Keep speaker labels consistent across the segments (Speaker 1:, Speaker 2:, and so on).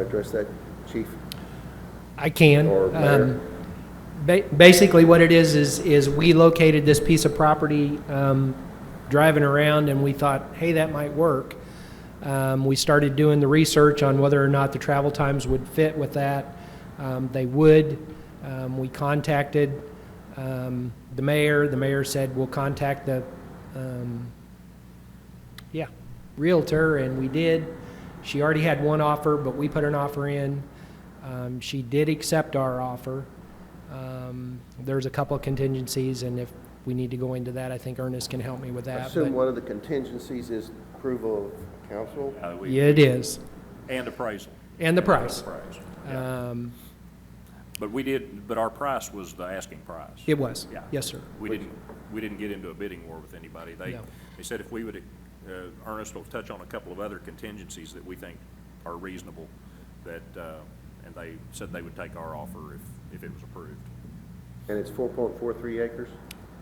Speaker 1: address that, Chief?
Speaker 2: I can.
Speaker 1: Or
Speaker 2: Um,
Speaker 1: mayor?
Speaker 2: ba- Basically, what it is, is, is we located this piece of property, um, driving around, and we thought, hey, that might work. Um, we started doing the research on whether or not the travel times would fit with that. Um, they would. Um, we contacted, um, the mayor. The mayor said, we'll contact the, um, yeah, realtor, and we did. She already had one offer, but we put an offer in. Um, she did accept our offer. Um, there's a couple of contingencies, and if we need to go into that, I think Ernest can help me with
Speaker 1: I
Speaker 2: that.
Speaker 1: assume
Speaker 2: Uh, but-
Speaker 1: one of the contingencies is approval of council?
Speaker 3: Uh, we-
Speaker 2: Yeah, it is,
Speaker 3: And appraisal.
Speaker 2: and the price.
Speaker 3: Price.
Speaker 2: Um,
Speaker 3: But we did, but our price was the asking price.
Speaker 2: it was,
Speaker 3: Yeah.
Speaker 2: yes, sir.
Speaker 3: We didn't, we didn't get into a bidding war with anybody. They,
Speaker 2: No.
Speaker 3: they said if we would, uh, Ernest will touch on a couple of other contingencies that we think are reasonable, that, uh, and they said they would take our offer if, if it was approved.
Speaker 1: And it's four point four three acres?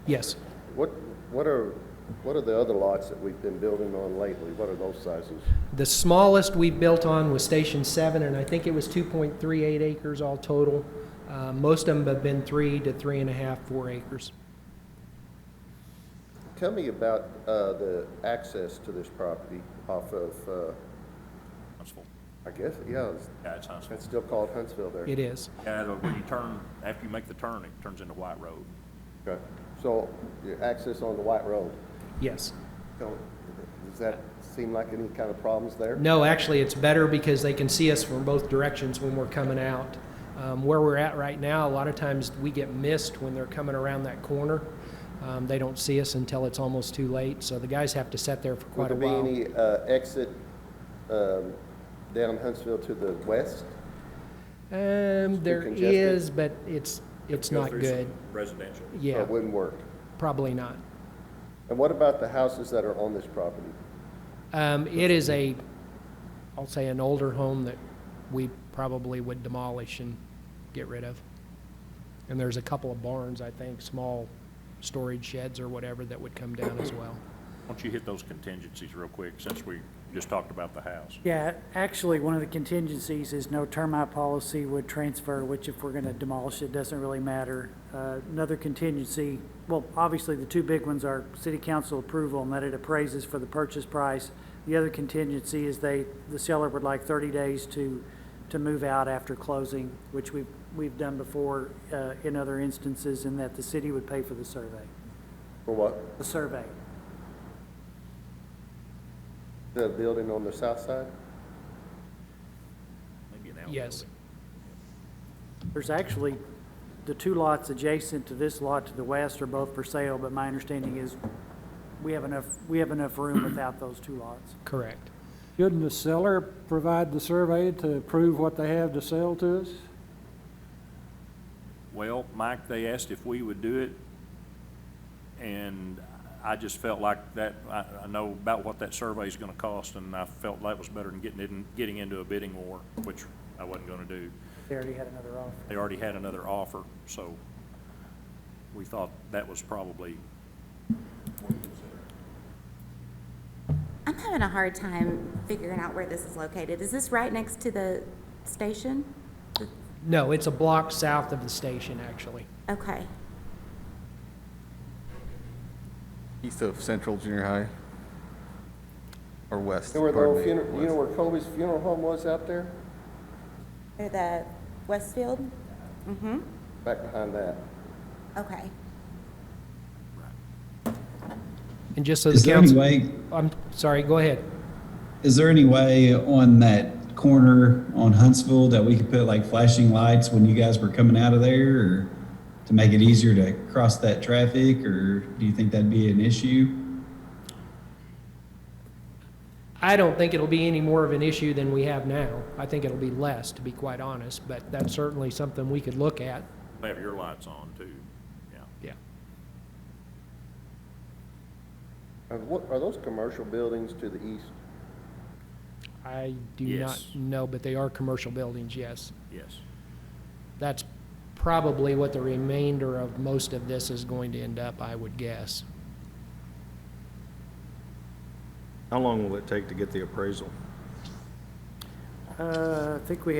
Speaker 2: Yes.
Speaker 1: What, what are, what are the other lots that we've been building on lately? What are those sizes?
Speaker 2: The smallest we built on was Station Seven, and I think it was two point three eight acres all total. Uh, most of them have been three to three and a half, four acres.
Speaker 1: Tell me about, uh, the access to this property off of, uh,
Speaker 3: Huntsville.
Speaker 1: I guess, yeah, it's-
Speaker 3: Yeah, it's Huntsville.
Speaker 1: that's still called Huntsville there.
Speaker 2: It is.
Speaker 3: Yeah, the- when you turn, after you make the turn, it turns into White Road.
Speaker 1: Okay. So, your access on the White Road,
Speaker 2: Yes.
Speaker 1: don't, does that seem like any kind of problems there?
Speaker 2: No, actually, it's better because they can see us from both directions when we're coming out. Um, where we're at right now, a lot of times we get missed when they're coming around that corner. Um, they don't see us until it's almost too late, so the guys have to sit there for
Speaker 1: Would
Speaker 2: quite a
Speaker 1: there be
Speaker 2: while.
Speaker 1: any, uh, exit, um, down Huntsville to the west?
Speaker 2: Um, there
Speaker 1: congested?
Speaker 2: is, but it's, it's
Speaker 3: Go
Speaker 2: not
Speaker 3: through some
Speaker 2: good.
Speaker 3: Residential.
Speaker 2: Yeah,
Speaker 1: That wouldn't work.
Speaker 2: probably not.
Speaker 1: And what about the houses that are on this property?
Speaker 2: Um, it is a, I'll say an older home that we probably would demolish and get rid of. And there's a couple of barns, I think, small storage sheds or whatever that would come down as well.
Speaker 3: Why don't you hit those contingencies real quick, since we just talked about the house?
Speaker 4: Yeah, actually, one of the contingencies is no termite policy would transfer, which if we're going to demolish it, doesn't really matter. Uh, Another contingency, well, obviously, the two big ones are city council approval and that it appraises for the purchase price. The other contingency is they, the seller would like 30 days to, to move out after closing, which we've, we've done before uh, in other instances, and that the city would pay for the survey,
Speaker 1: For what?
Speaker 4: the survey.
Speaker 1: The building on the south side?
Speaker 3: Maybe an
Speaker 2: Yes,
Speaker 4: There's actually, the two lots adjacent to this lot to the west are both for sale, but my understanding is we have enough, we have enough room without those two lots.
Speaker 2: correct.
Speaker 5: Shouldn't the seller provide the survey to prove what they have to sell to us?
Speaker 3: Well, Mike, they asked if we would do it, and I just felt like that, I, I know about what that survey's gonna cost, and I felt that was better than getting in, getting into a bidding war, which I wasn't gonna do.
Speaker 4: They already had another offer.
Speaker 3: They already had another offer, so we thought that was probably,
Speaker 6: I'm having a hard time figuring out where this is located. Is this right next to the station?
Speaker 2: No, it's a block south of the station, actually.
Speaker 6: Okay.
Speaker 7: East of Central Junior High? Or west?
Speaker 1: You know where the
Speaker 7: pardon
Speaker 1: old
Speaker 7: me,
Speaker 1: funeral, you know
Speaker 7: west.
Speaker 1: where Colby's funeral home was out there?
Speaker 6: Or the Westfield? Mm-hmm.
Speaker 1: Back behind that.
Speaker 6: Okay.
Speaker 2: And just so
Speaker 8: Is
Speaker 2: the
Speaker 8: there any
Speaker 2: council,
Speaker 8: way,
Speaker 2: I'm sorry, go ahead.
Speaker 8: is there any way on that corner on Huntsville that we could put like flashing lights when you guys were coming out of there or to make it easier to cross that traffic or do you think that'd be an issue?
Speaker 2: I don't think it'll be any more of an issue than we have now. I think it'll be less, to be quite honest, but that's certainly something we could look at,
Speaker 3: they have your lights on too, yeah.
Speaker 2: yeah.
Speaker 1: Are what, are those commercial buildings to the east?
Speaker 2: I do not
Speaker 3: Yes.
Speaker 2: know, but they are commercial buildings, yes.
Speaker 3: Yes.
Speaker 2: That's probably what the remainder of most of this is going to end up, I would guess.
Speaker 9: How long will it take to get the appraisal?
Speaker 4: Uh, I think we